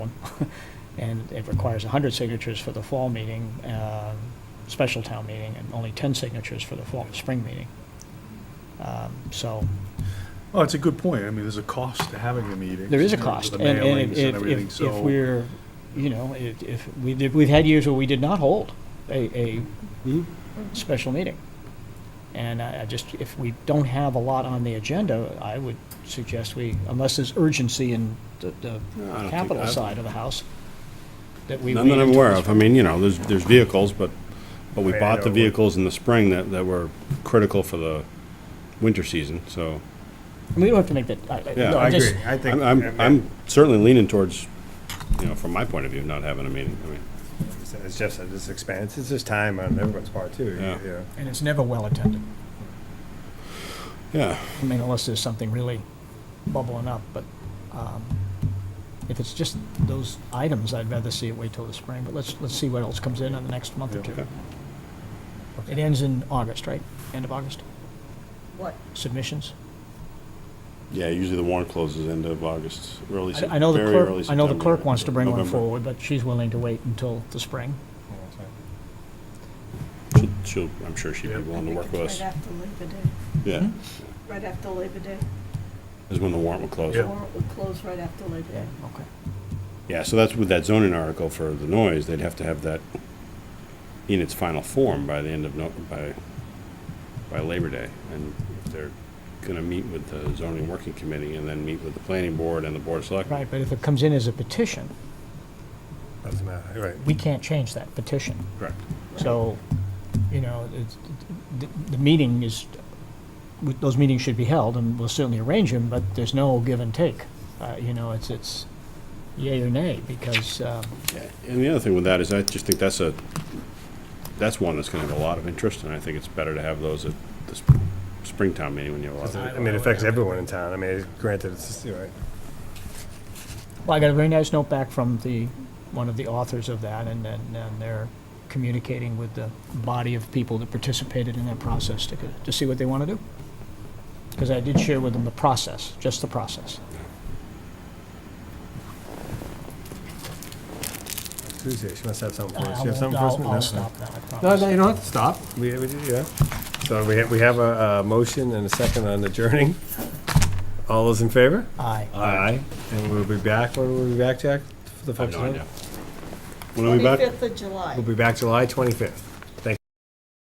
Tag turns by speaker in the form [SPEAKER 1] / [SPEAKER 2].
[SPEAKER 1] And it requires 100 signatures for the fall meeting, um, special town meeting, and only 10 signatures for the fall, spring meeting. Um, So
[SPEAKER 2] Oh, it's a good point. I mean, there's a cost to having the meetings.
[SPEAKER 1] there is a
[SPEAKER 2] in terms
[SPEAKER 1] cost.
[SPEAKER 2] of
[SPEAKER 1] and
[SPEAKER 2] The
[SPEAKER 1] and if-
[SPEAKER 2] mailings and
[SPEAKER 1] if-
[SPEAKER 2] everything,
[SPEAKER 1] if- If
[SPEAKER 2] so.
[SPEAKER 1] we're, you know, if if we did, we've had years where we did not hold a, a special meeting. And I I just, if we don't have a lot on the agenda, I would suggest we, unless there's urgency in the- the
[SPEAKER 3] No, I don't think-
[SPEAKER 1] capital
[SPEAKER 3] I-
[SPEAKER 1] side of the house, that we.
[SPEAKER 3] None
[SPEAKER 1] wait
[SPEAKER 3] that I'm
[SPEAKER 1] until
[SPEAKER 3] aware
[SPEAKER 1] the
[SPEAKER 3] of. I mean, you know, there's, there's vehicles, but, but we
[SPEAKER 2] Right, I
[SPEAKER 3] bought the
[SPEAKER 2] know, but-
[SPEAKER 3] vehicles in the spring that, that were critical for the winter season, so.
[SPEAKER 1] spring. We don't have to make that, I- I,
[SPEAKER 3] Yeah,
[SPEAKER 1] no,
[SPEAKER 3] I
[SPEAKER 1] I just,
[SPEAKER 4] I think.
[SPEAKER 3] I'm, I'm- I'm certainly leaning towards, you know, from my point of view, not having a meeting. I mean,
[SPEAKER 4] As Jeff said, this expands, it's just time on everyone's part too.
[SPEAKER 3] Yeah.
[SPEAKER 4] you know.
[SPEAKER 1] and it's never well attended.
[SPEAKER 3] yeah,
[SPEAKER 1] I mean, unless there's something really bubbling up, but um, if it's just those items, I'd rather see it wait till the spring, but let's, let's see what else comes in in the next month or two.
[SPEAKER 3] okay.
[SPEAKER 1] It ends in August, right? End of August,
[SPEAKER 5] What?
[SPEAKER 1] submissions?
[SPEAKER 3] Yeah, usually the warrant closes end of August, early,
[SPEAKER 1] I
[SPEAKER 3] Sep-
[SPEAKER 1] I know the
[SPEAKER 3] very early
[SPEAKER 1] clerk, I know the
[SPEAKER 3] September,
[SPEAKER 1] clerk wants to bring one
[SPEAKER 3] November.
[SPEAKER 1] forward, but she's willing to wait until the spring.
[SPEAKER 3] She'll- She'll, I'm sure she'd be
[SPEAKER 2] Yeah.
[SPEAKER 3] willing to work with us.
[SPEAKER 5] Right after Labor Day,
[SPEAKER 3] Yeah,
[SPEAKER 5] right after Labor Day,
[SPEAKER 3] is when the warrant will close.
[SPEAKER 2] Yeah.
[SPEAKER 5] or it would close right after Labor Day.
[SPEAKER 1] Okay.
[SPEAKER 3] Yeah, so that's with that zoning article for the noise, they'd have to have that in its final form by the end of, no- by, by Labor Day. And if they're gonna meet with the zoning working committee and then meet with the planning board and the board of selectmen.
[SPEAKER 1] Right, but if it comes in as a petition,
[SPEAKER 4] Doesn't matter, right.
[SPEAKER 1] we can't change that petition.
[SPEAKER 3] Correct.
[SPEAKER 1] So, you know, it's, the, the meeting is, with- those meetings should be held, and we'll certainly arrange them, but there's no give and take. Uh, you know, it's, it's yay or nay, because, um,
[SPEAKER 3] Yeah, And the other thing with that is I just think that's a, that's one that's gonna have a lot of interest, and I think it's better to have those at the sp- springtime meeting when you have a lot of.
[SPEAKER 4] I mean, it affects everyone in town. I mean, granted, it's, just, you know,
[SPEAKER 1] Well, I got a very nice note back from the, one of the authors of that, and, and, and they're communicating with the body of people that participated in that process to, to see what they want to do. Because I did share with them the process, just the process.
[SPEAKER 4] it's Tuesday, she must have something for us.
[SPEAKER 1] I
[SPEAKER 4] She have
[SPEAKER 1] won't-
[SPEAKER 4] something for us?
[SPEAKER 1] I'll,
[SPEAKER 4] No?
[SPEAKER 1] I'll stop now, I
[SPEAKER 4] No,
[SPEAKER 1] promise.
[SPEAKER 4] no, you don't have to stop. We, we, did, yeah. So we have, we have a, a motion and a second on adjourning. All those in favor?
[SPEAKER 1] Aye.
[SPEAKER 4] Aye. And we'll be back, when will we be back, Jack? For the
[SPEAKER 3] I have no
[SPEAKER 4] folks who know?
[SPEAKER 3] idea. When are we back?
[SPEAKER 5] Twenty-fifth of July.
[SPEAKER 4] We'll be back July twenty-fifth.